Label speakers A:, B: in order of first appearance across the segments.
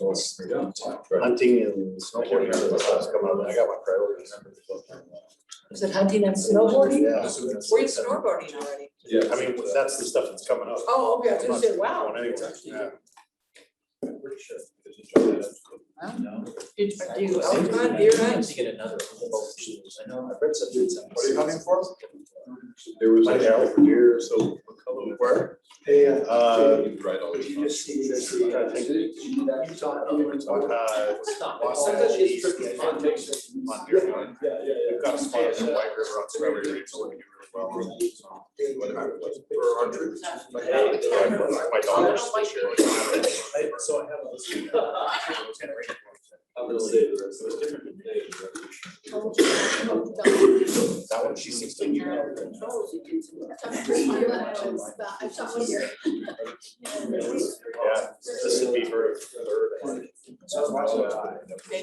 A: was
B: hunting and snowboarding.
A: remember what was
B: coming up, I got my priorities.
C: Was it hunting and snowboarding?
B: Yeah.
C: Were you snowboarding already?
A: Yeah,
B: I mean, that's the stuff that's coming up.
C: Oh, okay, I was gonna say, wow.
B: Going anywhere, yeah.
C: Did do you elk hunt, deer hunt?
D: To get another whole boat of shoes. I know, I've read some dudes.
B: What are you hunting for?
A: There was
B: My
A: a
B: arrow.
A: deer, deer, so. Where?
B: Hey,
A: Uh.
B: uh,
A: You just see
B: this, you gotta think. uh, Los
D: Sometimes
B: Angeles,
D: it's
B: East,
D: pretty fun.
B: on deer hunt.
A: Yeah, yeah,
B: We've got a spot in the White River on Strawberry Ridge, so we do really well.
A: For archery.
B: My my daughter's this year.
A: So I have a list. I'm
D: gonna
A: say the rest. It was different than
B: That one, she's sixteen years old.
E: I saw one here.
B: Yeah, this would be her third. I think.
A: So I was watching it.
C: Okay,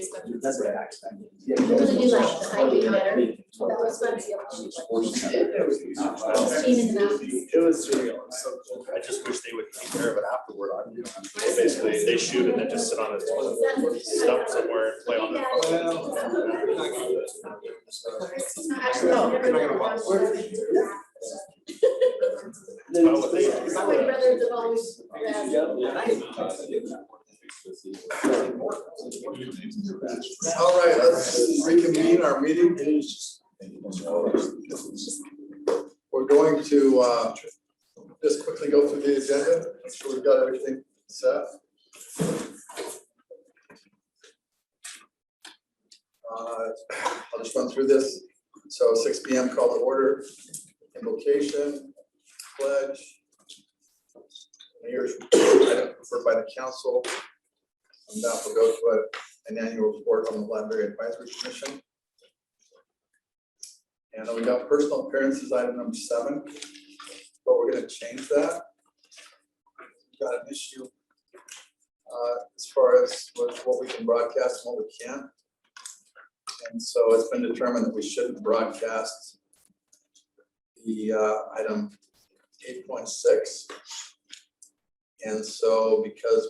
C: so-
D: That's what I expected.
E: Doesn't do like the highway hunter. That was fun to see what she was. Seen in the mountains.
B: It was surreal. It's so cool. I just wish they would take care of it afterward. I- They basically, they shoot and then just sit on a stump somewhere and play on it.
E: Actually, I've never done one.
B: It's about what they-
E: So my brothers have always, uh,
F: All right, let's reconvene our meeting. We're going to uh, just quickly go through the agenda, make sure we've got everything set. Uh, I'll just run through this. So six P M call to order, invocation, pledge. Mayor's item preferred by the council. And that will go to a an annual report on the library advisory commission. And then we got personal appearances, item number seven, but we're gonna change that. We've Got an issue. uh, as far as what, what we can broadcast and what we can't. And so it's been determined that we shouldn't broadcast the, uh, item eight point six. And so because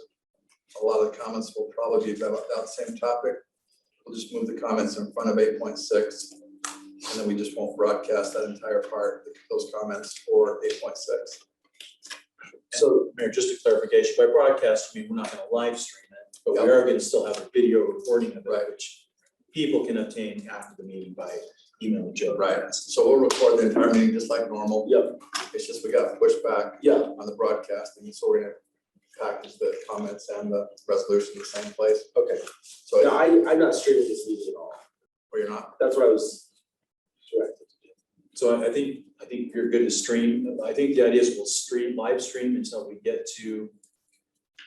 F: a lot of the comments will probably be about that same topic. We'll just move the comments in front of eight point six, and then we just won't broadcast that entire part, those comments for eight point six.
D: So, Mayor, just a clarification, by broadcast, I mean, we're not gonna live stream it, but we are gonna still have a video recording of it,
F: Right.
D: which people can obtain after the meeting by email Joe.
F: Right, so we'll record the entire meeting just like normal.
D: Yep.
F: It's just we got pushback
D: Yeah,
F: on the broadcasting, so we're gonna package the comments and the resolution in the same place,
G: Okay,
F: so
G: no, I, I'm not streaming this meeting at all.
F: where you're not.
G: That's what I was directed to do.
D: So I, I think, I think if you're good to stream, I think the idea is we'll stream, live stream until we get to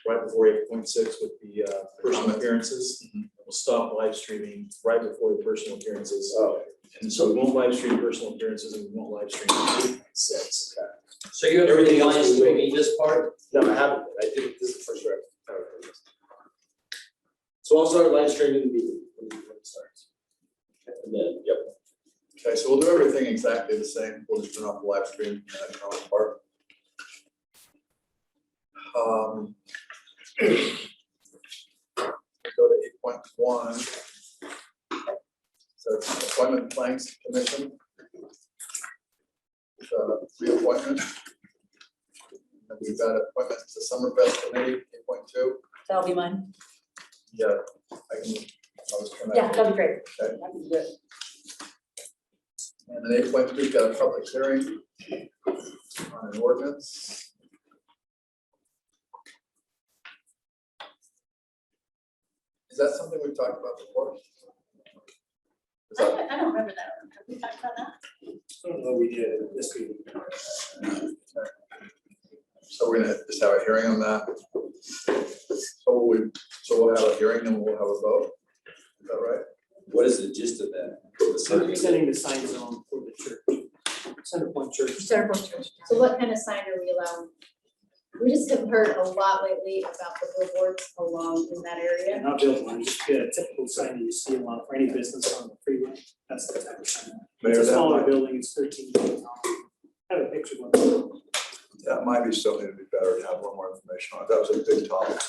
D: right before eight point six with the uh personal
F: Comments.
D: appearances. We'll stop live streaming right before the personal appearances.
G: Oh,
D: And so we won't live stream personal appearances and we won't live stream eight six.
H: So you're
G: Everything
H: everything
G: else
H: else
G: is
H: streaming this part?
G: no, I haven't, I did, this is the first round. I haven't done this. So I'll start live streaming the meeting when when it starts. And then, yep,
F: Okay, so we'll do everything exactly the same, we'll just turn off the live stream and that comment part. Um. Go to eight point one. So it's appointment planks commission. Uh, reappointment. And we've got appointments to Summerfest committee, eight point two.
I: That'll be mine.
F: Yeah. I can, I was trying to.
I: Yeah, that'll be great.
F: Okay.
I: That'd be good.
F: And then eight point three, got a public hearing on an ordinance. Is that something we've talked about before? Is
E: I
F: that-
E: don't, I don't remember that. one. Have we talked about that?
G: I don't know, we did this meeting.
F: So we're gonna just have a hearing on that. So we, so we'll have a hearing and we'll have a vote. Is that right?
H: What is the gist of that?
G: Sending the sign zone for the church, center point church.
I: Sarah Bush.
E: So what kind of sign are we allowing? We just have heard a lot lately about the billboards along in that
G: Yeah,
E: area.
G: not build one, just get a typical sign that you see a lot for any business on the freeway, that's the type of sign. It's
F: Mayor,
G: a
F: that
G: smaller
F: might,
G: building, it's thirteen feet tall. I have a picture of one.
F: that might be something that'd be better to have a little more information on. That was a big topic.